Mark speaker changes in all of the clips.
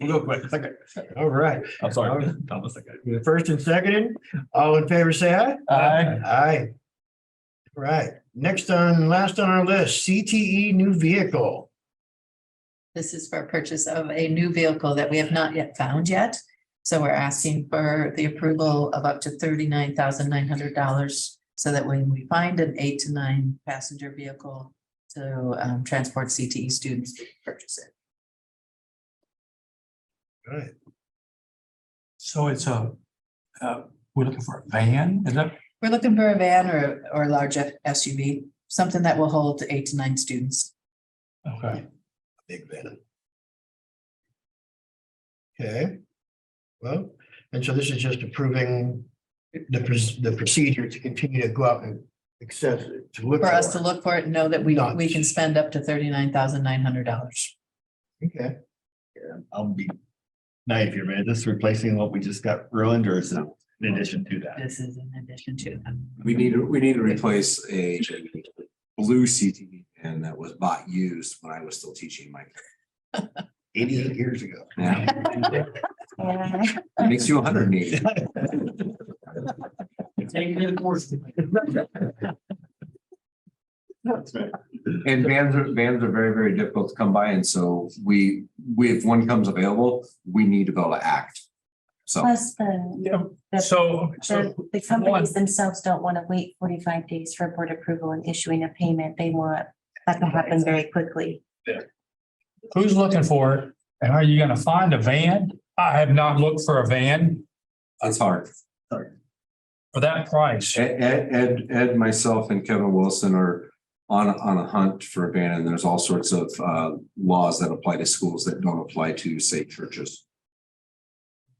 Speaker 1: Real quick. All right.
Speaker 2: I'm sorry, Thomas, I got it.
Speaker 1: The First and seconded, all in favor, say aye.
Speaker 2: Aye.
Speaker 1: Aye. Right, next on, last on our list, CTE new vehicle.
Speaker 3: This is for purchase of a new vehicle that we have not yet found yet. So we're asking for the approval of up to thirty-nine thousand nine hundred dollars. So that when we find an eight to nine passenger vehicle to um, transport CTE students, we can purchase it.
Speaker 1: Right,
Speaker 4: So it's a, uh, we're looking for a van, is that,
Speaker 3: We're looking for a van or, or a large SUV, something that will hold eight to nine students.
Speaker 4: okay,
Speaker 1: big van. Okay. Well, and so this is just approving the, pres- the procedure to continue to go out and access it, to look
Speaker 3: For us
Speaker 1: for
Speaker 3: to
Speaker 1: it.
Speaker 3: look for it and know that we,
Speaker 1: Not-
Speaker 3: we can spend up to thirty-nine thousand nine hundred dollars.
Speaker 1: Okay,
Speaker 2: I'll be naive here, man. This replacing what we just got ruined or is it in addition to that?
Speaker 3: This is in addition to that.
Speaker 5: We need to, we need to replace a blue CTV and that was bought used when I was still teaching my.
Speaker 1: eighty-eight years ago.
Speaker 5: Yeah, it makes you hundred and eighty.
Speaker 2: That's right.
Speaker 5: And vans are, vans are very, very difficult to come by. And so we, we, if one comes available, we need to be able to act. So
Speaker 6: Plus the,
Speaker 4: yeah, so, so,
Speaker 6: the, the companies themselves don't want to wait forty-five days for board approval and issuing a payment. They want that to happen very quickly.
Speaker 4: who's looking for it, and are you gonna find a van? I have not looked for a van
Speaker 5: that's hard.
Speaker 4: for that price.
Speaker 5: Ed, Ed- Ed, Ed, myself and Kevin Wilson are on, on a hunt for a van and there's all sorts of, uh, laws that apply to schools that don't apply to, say, churches.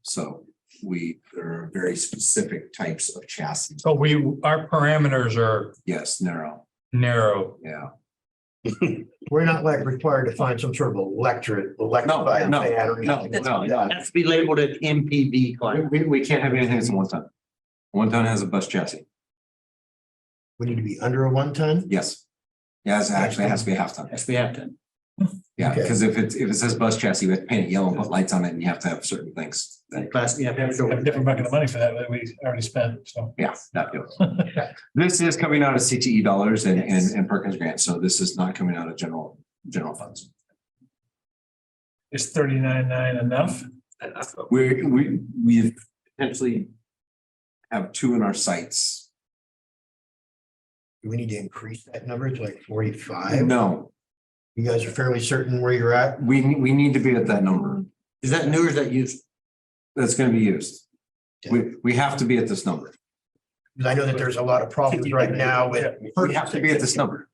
Speaker 5: So we, there are very specific types of chassis.
Speaker 4: So we, our parameters are
Speaker 5: Yes, narrow,
Speaker 4: narrow.
Speaker 5: yeah.
Speaker 1: We're not like required to find some sort of electric, electrified.
Speaker 5: no,
Speaker 1: van or
Speaker 5: No,
Speaker 1: anything.
Speaker 5: no, yeah.
Speaker 7: Has to be labeled an MPV
Speaker 5: We,
Speaker 7: class.
Speaker 5: we, we can't have anything that's a one ton. One ton has a bus chassis,
Speaker 1: We need to be under a one ton?
Speaker 5: yes. Yeah, it's actually it has to be a half ton.
Speaker 7: Yes, we have to.
Speaker 5: Yeah,
Speaker 1: Okay.
Speaker 5: because if it's, if it says bus chassis, we have to paint it yellow and put lights on it and you have to have certain things. that-
Speaker 7: Class, you have to.
Speaker 4: Have a different bucket of money for that that we already spent, so.
Speaker 5: Yeah, that deal. This is coming out of CTE dollars and, and, and Perkins grants, so this is not coming out of general, general funds.
Speaker 4: Is thirty-nine nine enough?
Speaker 5: We, we, we potentially have two in our sights.
Speaker 1: Do we need to increase that number to like forty-five?
Speaker 5: No,
Speaker 1: You guys are fairly certain where you're at?
Speaker 5: we, we need to be at that number
Speaker 7: Is that new or is that used?
Speaker 5: that's gonna be used. We, we have to be at this number.
Speaker 1: Because I know that there's a lot of problems right now with.
Speaker 5: We have to be at this number.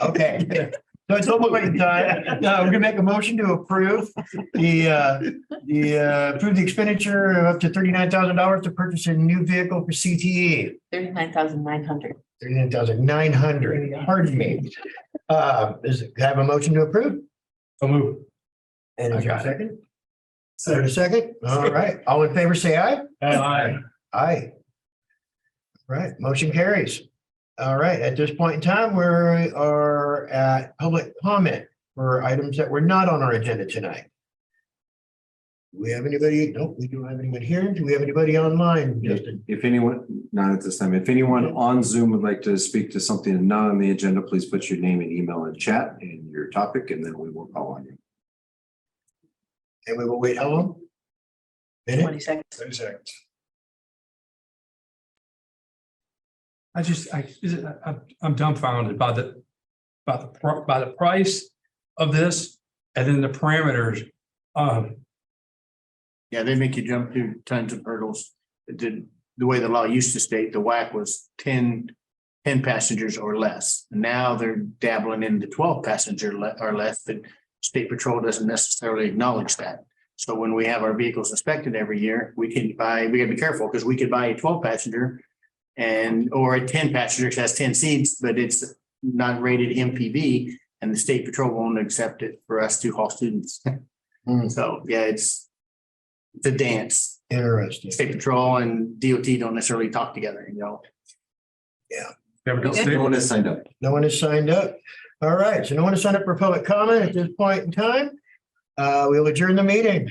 Speaker 1: Okay. So it's almost like, uh, no, we're gonna make a motion to approve the, uh, the, uh, approve the expenditure of up to thirty-nine thousand dollars to purchase a new vehicle for CTE.
Speaker 3: Thirty-nine thousand nine hundred.
Speaker 1: Thirty-nine thousand nine hundred, pardon me. Uh, is, can I have a motion to approve?
Speaker 4: So move.
Speaker 1: And is there a
Speaker 4: I
Speaker 1: second? Is there a second? All right, all in favor, say aye.
Speaker 4: Aye.
Speaker 1: Aye. Right, motion carries. All right, at this point in time, we are at public comment for items that were not on our agenda tonight. Do we have anybody? Nope, we don't have anyone here. Do we have anybody online, Justin?
Speaker 5: If anyone, not at this time, if anyone on Zoom would like to speak to something not on the agenda, please put your name and email in chat and your topic, and then we will call on you.
Speaker 1: And we will wait how long? Minute?
Speaker 3: Twenty seconds.
Speaker 4: Thirty seconds.
Speaker 8: I just, I, is it- I, I'm dumbfounded by the, by the, pr- by the price of this and then the parameters. Um,
Speaker 7: Yeah, they make you jump through tons of hurdles. It did, the way the law used to state, the whack was 10 10 passengers or less. Now they're dabbling in the twelve passenger le- or less, but state patrol doesn't necessarily acknowledge that. So when we have our vehicles inspected every year, we can buy, we gotta be careful because we could buy a twelve passenger and, or a ten passenger that has ten seats, but it's not rated MPV and the state patrol won't accept it for us to haul students.
Speaker 1: Hmm.
Speaker 7: So, yeah, it's the dance.
Speaker 1: Interesting.
Speaker 7: State patrol and DOT don't necessarily talk together, you know?
Speaker 8: there we go.
Speaker 5: No one has signed up.
Speaker 1: No one has signed up. All right, so no one has signed up for public comment at this point in time. Uh, we will adjourn the meeting.